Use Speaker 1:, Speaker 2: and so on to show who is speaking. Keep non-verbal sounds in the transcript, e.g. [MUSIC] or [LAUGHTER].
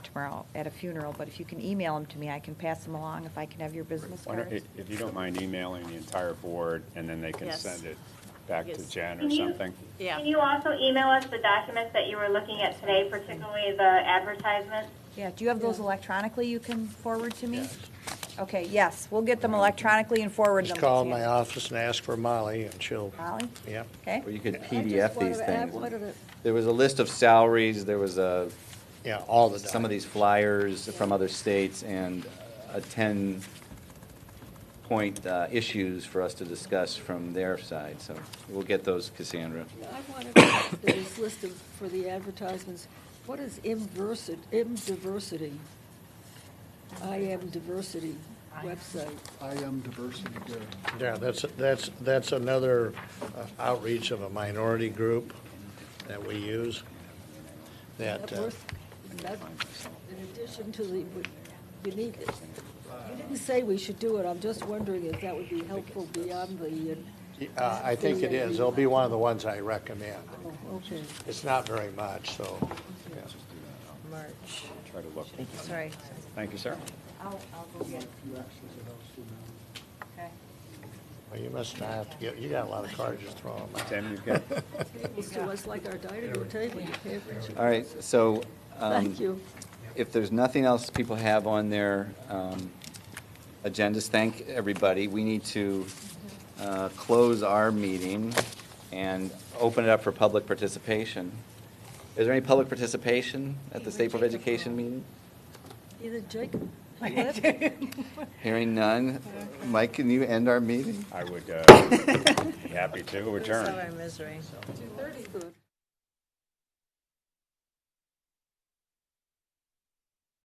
Speaker 1: tomorrow at a funeral, but if you can email them to me, I can pass them along if I can have your business
Speaker 2: Why don't-
Speaker 1: cards.
Speaker 2: If you don't mind emailing the entire board, and then they can
Speaker 3: Yes.
Speaker 2: send it back to
Speaker 3: Yes.
Speaker 2: Jen or
Speaker 4: Can you-
Speaker 2: something.
Speaker 3: Yeah,
Speaker 4: Can you also email us the documents that you were looking at today, particularly the advertisements?
Speaker 1: Yeah, do you have those electronically you can forward to me?
Speaker 5: Yes.
Speaker 1: Okay, yes, we'll get them electronically and forward them
Speaker 5: Just
Speaker 1: to
Speaker 5: call
Speaker 1: you.
Speaker 5: my office and ask for Molly, and she'll,
Speaker 1: Molly,
Speaker 5: yep.
Speaker 1: okay?
Speaker 6: Or you could
Speaker 7: I just
Speaker 6: PDF
Speaker 7: wanted
Speaker 6: these
Speaker 7: to add
Speaker 6: things.
Speaker 7: one other-
Speaker 6: There was a list of salaries, there was a,
Speaker 5: Yeah, all the
Speaker 6: some of
Speaker 5: documents.
Speaker 6: these flyers from other states, and a 10-point issues for us to discuss from their side, so we'll get those, Cassandra.
Speaker 7: I wanted to add to this list of, for the advertisements, what is imversi- imdiversity? I am diversity website.
Speaker 8: I am diversity good.
Speaker 5: Yeah, that's, that's, that's another uh, outreach of a minority group that we use, that,
Speaker 7: That
Speaker 5: uh,
Speaker 7: worth- that- In addition to the, we need, you didn't say we should do it, I'm just wondering if that would be helpful beyond the,
Speaker 5: uh, I think it is, it'll be one of the ones I recommend.
Speaker 7: oh, okay,
Speaker 5: It's not very much, so, yeah.
Speaker 7: March.
Speaker 2: Try to look.
Speaker 1: Sorry.
Speaker 2: Thank you, sir.
Speaker 1: I'll, I'll go get,
Speaker 8: Few extras of those two now.
Speaker 1: okay.
Speaker 5: Well, you must not have to get, you got a lot of cards, just throw them out.
Speaker 2: Tim, you've got,
Speaker 5: [LAUGHS]
Speaker 7: Tables to us like our dining room table, you pay attention.
Speaker 6: All right, so. um,
Speaker 7: Thank you.
Speaker 6: if there's nothing else people have on their um, agendas, thank everybody. We need to uh, close our meeting and open it up for public participation. Is there any public participation at the State Board of Education meeting?
Speaker 7: Either
Speaker 6: [LAUGHS]
Speaker 7: Jacob,
Speaker 6: Hearing none. Mike, can
Speaker 4: [LAUGHS]
Speaker 6: you end our meeting?
Speaker 2: I would uh, be happy to adjourn.
Speaker 7: good.